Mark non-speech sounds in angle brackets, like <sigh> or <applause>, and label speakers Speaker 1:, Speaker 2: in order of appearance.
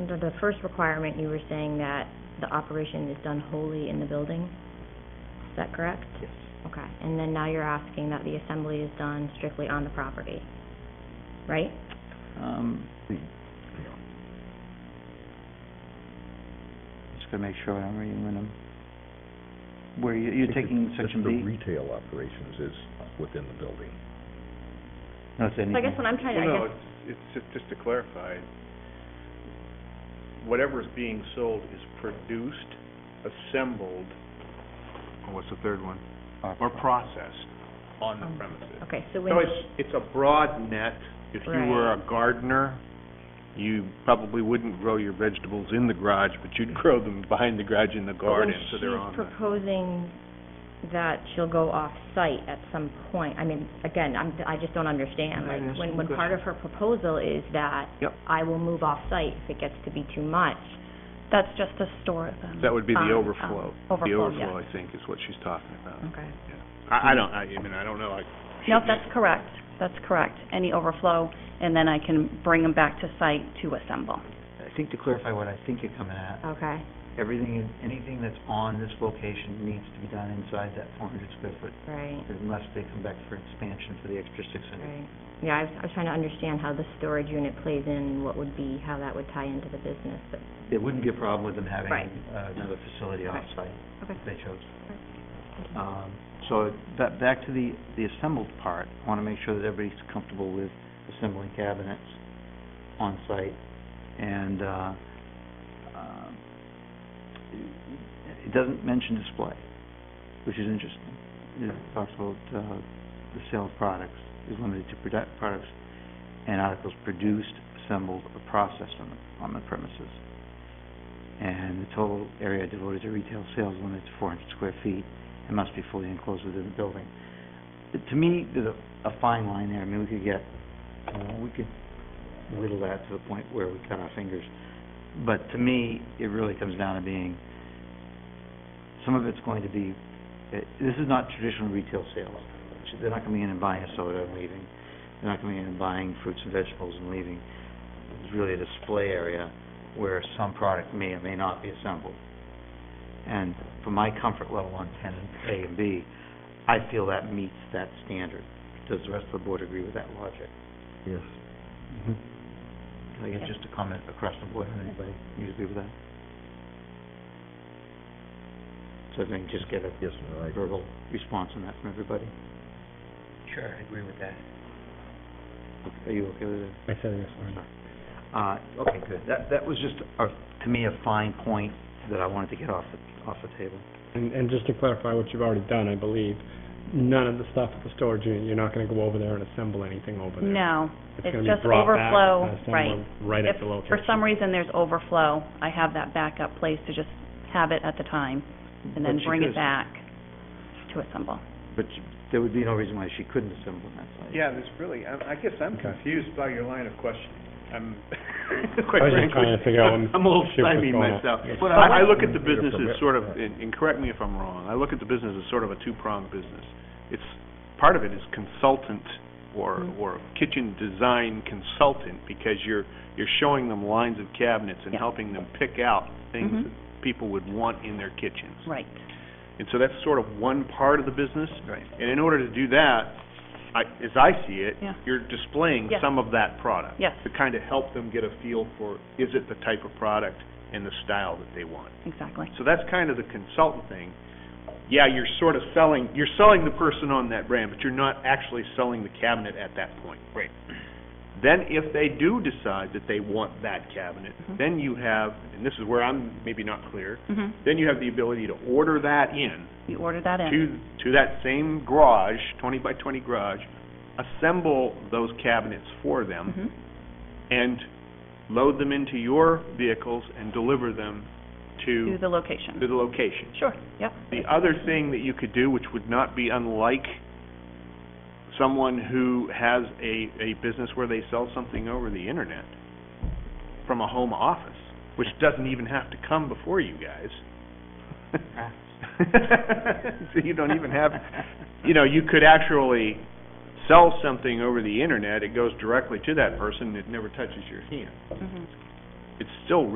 Speaker 1: under the first requirement, you were saying that the operation is done wholly in the building? Is that correct?
Speaker 2: Yes.
Speaker 1: Okay, and then now you're asking that the assembly is done strictly on the property, right?
Speaker 2: Um,
Speaker 3: Hmm.
Speaker 2: Just gonna make sure I'm reading them. Where you, you're taking section
Speaker 3: The
Speaker 2: B?
Speaker 3: retail operations is within the building.
Speaker 2: No, it's anything.
Speaker 1: So I guess what I'm trying to, I
Speaker 4: Well, no,
Speaker 1: guess,
Speaker 4: it's, it's just, just to clarify, whatever's being sold is produced, assembled, and what's the third one? Or processed on the premises.
Speaker 1: okay, so when,
Speaker 4: So it's, it's a broad net. If you were a gardener, you probably wouldn't grow your vegetables in the garage, but you'd <laughs> grow them behind the garage in the
Speaker 1: but when
Speaker 4: garden, so they're on
Speaker 1: she's
Speaker 4: the...
Speaker 1: proposing that she'll go off-site at some point, I mean, again, I'm, I just don't understand,
Speaker 2: Can I
Speaker 1: like,
Speaker 2: ask
Speaker 1: when,
Speaker 2: you a
Speaker 1: when part of her proposal is that
Speaker 2: Yep.
Speaker 1: I will move off-site if it gets to be too much,
Speaker 5: That's just to store them.
Speaker 4: That would be
Speaker 5: on,
Speaker 4: the
Speaker 5: um,
Speaker 4: overflow. The
Speaker 5: Overflow,
Speaker 4: overflow,
Speaker 5: yes.
Speaker 4: I think, is what she's talking about.
Speaker 1: okay.
Speaker 4: I, I don't, I, I mean, I don't know, I...
Speaker 5: Nope, that's correct, that's correct. Any overflow, and then I can bring them back to site to assemble.
Speaker 2: I think to clarify what I think you're coming at,
Speaker 1: Okay,
Speaker 2: everything, anything that's on this location needs to be done inside that four hundred square foot,
Speaker 1: right,
Speaker 2: unless they come back for expansion for the extra six hundred.
Speaker 1: right. Yeah, I was, I was trying to understand how the storage unit plays in, and what would be, how that would tie into the business, but,
Speaker 2: There wouldn't be a problem with them having
Speaker 1: Right.
Speaker 2: uh, another facility
Speaker 1: Okay.
Speaker 2: offsite,
Speaker 1: okay.
Speaker 2: if they chose. Um, So, ba- back to the, the assembled part, I want to make sure that everybody's comfortable with assembling cabinets on site. And, uh, um, it- it doesn't mention display, which is interesting. It talks about, uh, the sale of products is limited to product, products and articles produced, assembled, or processed on the, on the premises. And the total area devoted to retail sales limits four hundred square feet and must be fully enclosed within the building. But To me, there's a, a fine line there, I mean, we could get, uh, we could whittle that to the point where we cut our fingers. But to me, it really comes down to being, some of it's going to be, eh, this is not traditional retail sales. They're not coming in and buying a soda and leaving. They're not coming in and buying fruits and vegetables and leaving. It's really a display area where some product may or may not be assembled. And for my comfort level on tenant A and B, I feel that meets that standard. Does the rest of the board agree with that logic?
Speaker 3: Yes.
Speaker 2: Can I get
Speaker 1: Yes.
Speaker 2: just a comment across the board, anybody, you agree with that? So then just get a
Speaker 3: Yes, no, I,
Speaker 2: verbal response on that from everybody? Sure, I agree with that. Are you okay with it?
Speaker 3: I said yes, I
Speaker 2: Uh, okay, good. That, that was just, a to me, a fine point that I wanted to get off the, off the table.
Speaker 6: And, and just to clarify what you've already done, I believe, none of the stuff at the storage unit, you're not gonna go over there and assemble anything over there.
Speaker 5: No,
Speaker 6: It's
Speaker 5: it's
Speaker 6: gonna be
Speaker 5: just
Speaker 6: brought back
Speaker 5: overflow,
Speaker 6: and assembled
Speaker 5: right.
Speaker 6: Right
Speaker 5: If
Speaker 6: at the location.
Speaker 5: for some reason there's overflow, I have that backup place to just have it at the time, and
Speaker 2: But
Speaker 5: then
Speaker 2: she
Speaker 5: bring it
Speaker 2: could-
Speaker 5: back to assemble.
Speaker 2: But you- there would be no reason why she couldn't assemble on that site.
Speaker 4: Yeah, there's really, I, I guess I'm
Speaker 6: Okay.
Speaker 4: confused by your line of questioning. I'm, <laughs>
Speaker 6: I
Speaker 4: quite
Speaker 6: was just
Speaker 4: frankly.
Speaker 6: trying to
Speaker 4: <laughs>
Speaker 6: figure out when
Speaker 4: I'm a little
Speaker 6: shit was
Speaker 4: stymied
Speaker 6: going on.
Speaker 4: myself.
Speaker 3: Yes.
Speaker 4: But I, I look at the
Speaker 3: You're
Speaker 4: business as
Speaker 3: correct.
Speaker 4: sort of, and, and correct me if I'm wrong, I look at the business as sort of a two-pronged business. It's, part of it is consultant or,
Speaker 6: Mm-hmm.
Speaker 5: Mhm.
Speaker 4: or kitchen design consultant, because you're, you're showing them lines of cabinets and
Speaker 5: Yeah.
Speaker 4: helping them pick out things
Speaker 6: Mm-hmm.
Speaker 5: Mhm.
Speaker 4: that people would want in their kitchens.
Speaker 5: Right,
Speaker 4: And so that's sort of one part of the business.
Speaker 2: Right.
Speaker 4: And in order to do that, I, as I see it,
Speaker 5: Yeah.
Speaker 4: you're displaying
Speaker 5: Yes.
Speaker 4: some of that product.
Speaker 5: Yes.
Speaker 4: To kind of help them get a feel for, is it the type of product and the style that they want?
Speaker 5: exactly.
Speaker 4: So that's kind of the consultant thing. Yeah, you're sort of selling, you're selling the person on that brand, but you're not actually selling the cabinet at that point. Right. Then if they do decide that they want that cabinet,
Speaker 5: Mhm.
Speaker 4: then you have, and this is where I'm maybe not clear,
Speaker 5: hmm
Speaker 4: then you have the ability to order that in
Speaker 5: You order that in,
Speaker 4: to, to that same garage, twenty by twenty garage, assemble those cabinets for them
Speaker 5: hmm
Speaker 4: and load them into your vehicles and deliver them
Speaker 5: to
Speaker 4: to,
Speaker 5: the location.
Speaker 4: to the location.
Speaker 5: Sure, yep.
Speaker 4: The other thing that you could do, which would not be unlike someone who has a, a business where they sell something over the internet from a home office, which doesn't even have to come before you guys. <laughs>
Speaker 2: Ah. <laughs>
Speaker 4: So you don't even have, you know, you could actually sell something over the internet, it goes directly to that person, it never touches your hand.
Speaker 5: Mhm.
Speaker 4: It's still